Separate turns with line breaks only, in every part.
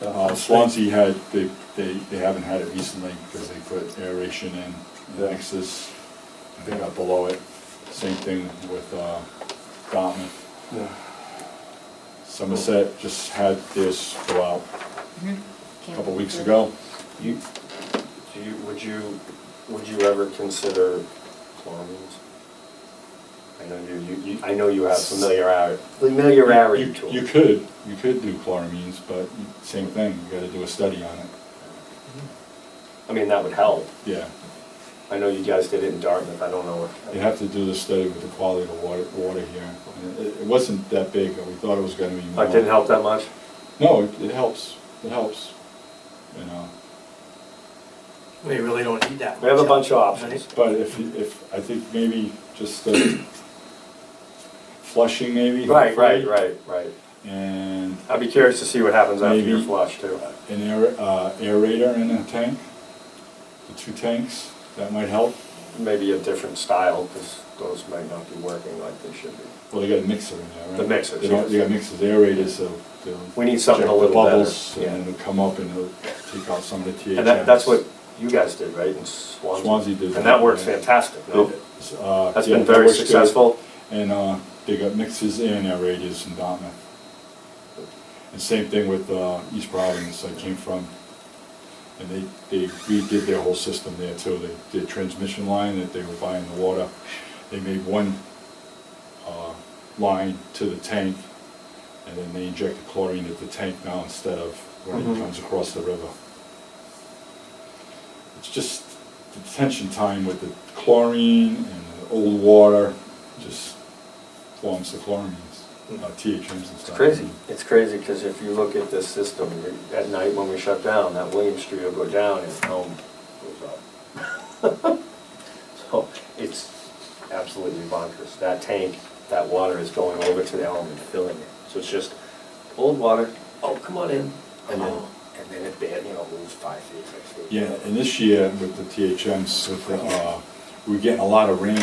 Uh, Swansea had, they, they, they haven't had it recently because they put aeration in the Nexus. They got below it. Same thing with, uh, Dartmouth.
Yeah.
Somerset just had this go out a couple weeks
Yeah.
ago.
You, do you, would you, would you ever consider chlorines? I know you, you- you, I know you have familiarity, familiarity
You-
to
You
it.
could, you could do chloramines, but same thing, you gotta do a study on it.
I mean, that would help.
Yeah,
I know you guys did it in Dartmouth, I don't know what.
you have to do the study with the quality of the water, water here. And It, it wasn't that big, but we thought it was gonna be more.
But didn't help that much?
No, it, it helps, it helps, you know.
We really don't need that.
We have a
much,
bunch of
right?
options.
But if, you- if, I think maybe just the flushing maybe.
Right, right, right, right.
And
I'd be curious to see what happens after your
Maybe.
flush too.
an aer, uh, aerator in a tank, the two tanks, that might help.
Maybe a different style, because those might not be working like they should be.
Well, they got a mixer in there, right?
The mixers,
They don't,
yes.
they got mixers, aerators, so they'll.
We need something
check
a
the
little better,
Bubbles,
yeah.
and it'll come up and it'll take out some of the THMs.
And that, that's what you guys did, right, in Swansea?
Swansea did
And that
that,
works
yeah.
fantastic, no?
Uh,
That's
yeah,
been
that
very
works good.
successful.
And uh, they got mixes and aerators in Dartmouth. And same thing with uh, East Providence, I came from. And they, they redid their whole system there too. They, their transmission line that they were buying the water, they made one uh, line to the tank and then they inject the chlorine at the tank now instead of when
Mhm.
it comes across the river. It's just the detention time with the chlorine and the old water just forms the chlorines, uh, THMs and stuff.
Mm. It's crazy. It's crazy, because if you look at this system, you- at night when we shut down, that William Street will go down and Elm goes up. So it's absolutely bonkers. That tank, that water is going over to the Elm and filling it. So it's just old water, oh, come on in, and then, and then it, ban- you know, moves five feet, six feet.
Yeah, and this year with the THMs, with the, uh, we were getting a lot of rain.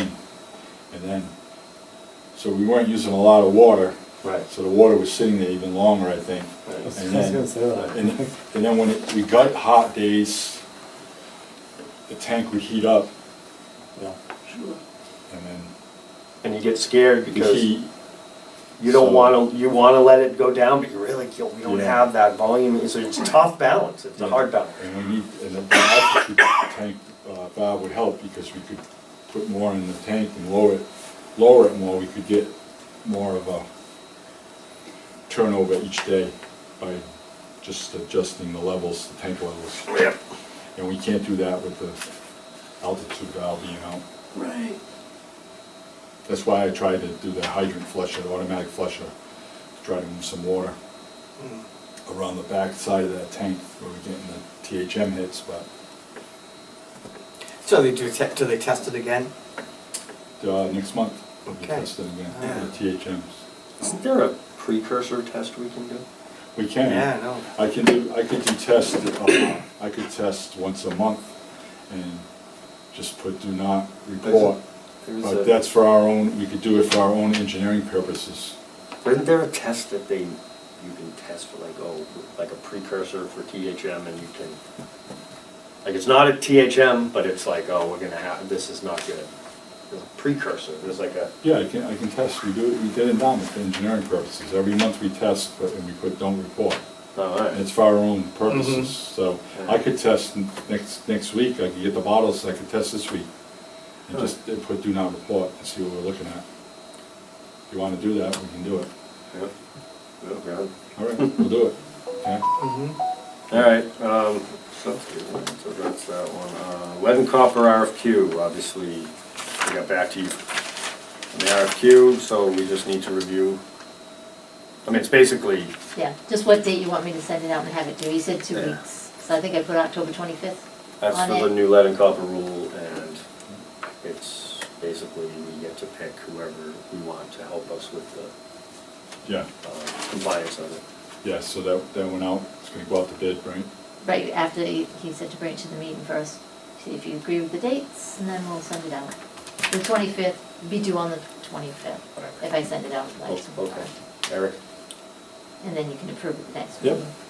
And then, so we weren't using a lot of water.
Right.
So the water was sitting there even longer, I think.
Right. I was
And
gonna say
then,
that.
and and then when it- we got hot days, the tank would heat up
Yeah.
and
And you get scared
then the
because.
heat,
You don't
So-
want to, you want to let it go down, but you really, you we don't
Yeah.
have that volume, so it's a tough balance, it's a hard balance.
and we need, and the valve to keep the tank uh, valve would help because we could put more in the tank and lower it, lower it more, we could get more of a turnover each day by just adjusting the levels, the tank levels.
Yep.
And we can't do that with the altitude valve being out.
Right.
That's why I tried to do the hydrant flusher, the automatic flusher, to try to move some water
Mm.
around the back side of that tank where we're getting the THM hits, but
So they do, te- do they test it again?
uh, next month we'll be
Okay. Ah.
testing again,
Yeah.
the THMs.
Isn't there a precursor test we can do?
We can.
Yeah, I know.
I can do, I could do test, uh, I could test once a month and just put do not report.
There's
But
a-
that's for our own, we could do it for our own engineering purposes.
Isn't there a test that they, you can test for like, oh, like a precursor for THM and you can, like, it's not a THM, but it's like, oh, we're gonna have, this is not good. There's a precursor, there's like a,
Yeah, I can, I can test, we do, it. we did it now for engineering purposes, every month we test, but, and we put don't report.
all
And it's
right.
for our own purposes, so I could test n- next, next week, I could get the bottles, I could test this week. And just uh, put do not report and see what we're looking at. If you wanna do that, we can do it.
Yep. Oh, God.
All right, we'll do it, okay?
All right, um, so that's good, all right, so that's that one. Uh, Lead and copper RFQ, obviously, we got back to you on the RFQ, so we just need to review. I mean, it's basically,
Yeah, just what date you want me to send it out and have it due, he said two
Yeah.
weeks, so I think I put October twenty-fifth
that's
on
for the
it.
new lead and copper rule, and it's basically, we get to pick whoever we want to help us with the
Yeah,
uh, compliance of it.
yeah, so that, that went out, it's gonna go out to bid, right?
Right after, he he said to bring it to the meeting first, see if you agree with the dates, and then we'll send it out. The twenty-fifth, be due on the twenty-fifth, if I send it out, like,
Oh, Okay, Eric?
and then you can approve it the next
Yep.
meeting.